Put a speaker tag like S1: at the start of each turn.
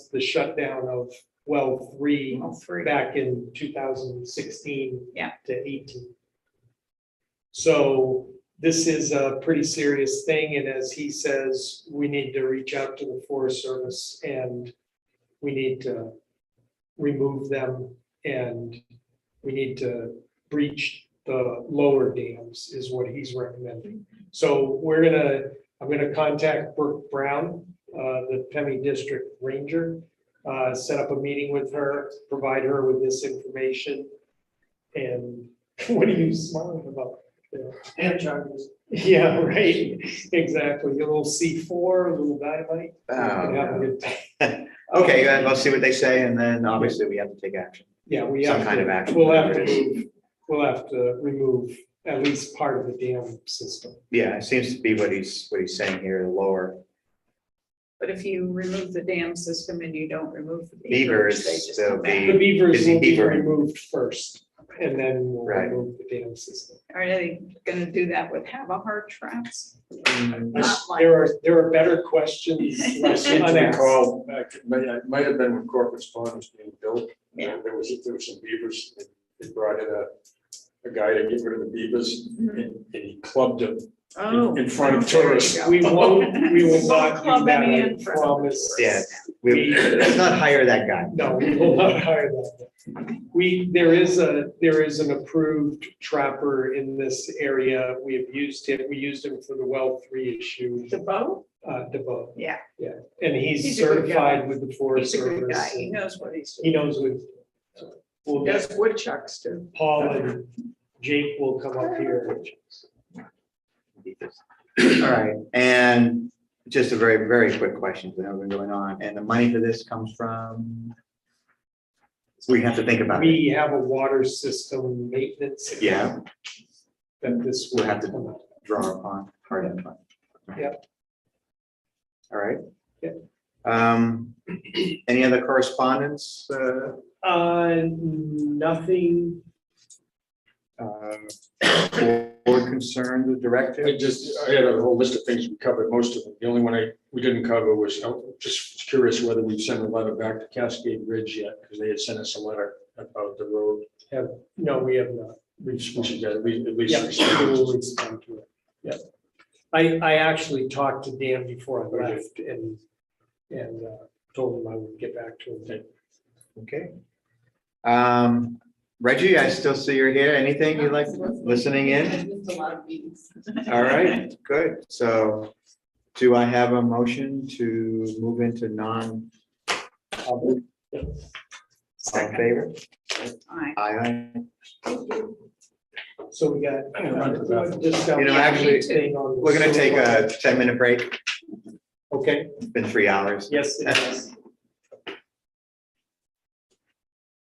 S1: the shutdown of well three
S2: All three.
S1: back in two thousand sixteen.
S2: Yeah.
S1: To eighteen. So this is a pretty serious thing, and as he says, we need to reach out to the Forest Service and we need to remove them and we need to breach the lower dams is what he's recommending. So we're gonna, I'm gonna contact Brooke Brown, uh, the Pemmy District Ranger, uh, set up a meeting with her, provide her with this information. And what are you smiling about? Hand charges. Yeah, right, exactly, a little C four, a little dynamite.
S3: Oh,
S1: We have a
S3: no.
S1: good time.
S3: Okay, then let's see what they say, and then obviously we have to take action.
S1: Yeah, we
S3: Some
S1: have
S3: kind of
S1: to,
S3: action,
S1: we'll have to
S3: whatever it is.
S1: move, we'll have to remove at least part of the dam system.
S3: Yeah, it seems to be what he's, what he's saying here, the lower
S2: But if you remove the dam system and you don't remove the
S3: beavers,
S2: beavers, they just
S3: they'll
S2: come back.
S3: be,
S1: The beavers
S3: Busy
S1: will be
S3: beaver.
S1: removed first, and then we'll
S3: Right.
S1: remove the dam system.
S2: Are they gonna do that with have a heart traps?
S4: Mm,
S2: Not like-
S1: There are, there are better questions
S4: I
S1: left
S4: seem to
S1: unasked.
S4: recall, back, it uh, may, it might have been when Corpus Pond was being built.
S2: Yeah.
S4: and There was, there was some beavers, and they brought in a, a guy to get rid of the beavers,
S2: Mm-hmm.
S4: and, and he clubbed them.
S2: Oh,
S4: in front of
S2: oh, there you
S4: tourists.
S2: go.
S1: We won't, we will
S2: Won't
S1: not do
S2: club
S1: that,
S2: any
S1: I
S2: in front of
S1: promise.
S3: yeah, we, let's not hire that guy.
S1: No, we will not hire that. We, there is a, there is an approved trapper in this area. We have used him, we used him for the well three issue,
S2: The bow?
S1: uh, DeBoe.
S2: Yeah.
S1: Yeah, and he's
S2: He's a good guy.
S1: certified with the Forest
S2: He's a good guy.
S1: Service.
S2: He knows what he's
S1: He
S2: doing.
S1: knows what. We'll
S2: Does
S1: get
S2: woodchucks do?
S1: Paul and Jake will come up here.
S3: All right, and just a very, very quick question, because I know we've been going on, and the money for this comes from? We have to think about it,
S1: We have a water system maintenance.
S3: Yeah.
S1: That this will
S3: We'll have to-
S1: come up.
S3: draw upon, hard and fun.
S1: Yep.
S3: All right.
S1: Yep.
S3: Um, any other correspondence, uh,
S1: Uh, nothing
S3: uh, board concerns or
S4: I
S3: directives?
S4: just, I had a whole list of things we covered, most of them. The only one I, we didn't cover was, oh, just curious whether we've sent a letter back to Cascade Ridge yet, because they had sent us a letter about the road.
S1: No, we have not.
S4: We should we should at least, at least.
S1: Yeah, we will respond to it. Yeah. I, I actually talked to Dan before I
S4: Okay.
S1: left and, and uh, told him I would get back to him.
S3: Okay. Um, Reggie, I still see you're here, anything you like, listening in?
S5: I missed a lot of meetings.
S3: All right, good. So do I have a motion to move into non? public? All in favor?
S2: Aye.
S3: Aye, aye.
S1: So we got.
S4: I'm gonna run to the bathroom.
S1: just got
S3: You know,
S1: one
S3: actually,
S1: thing on the
S3: We're gonna take
S1: silver.
S3: a ten minute break.
S1: Okay,
S3: It's been three hours.
S1: yes, it is.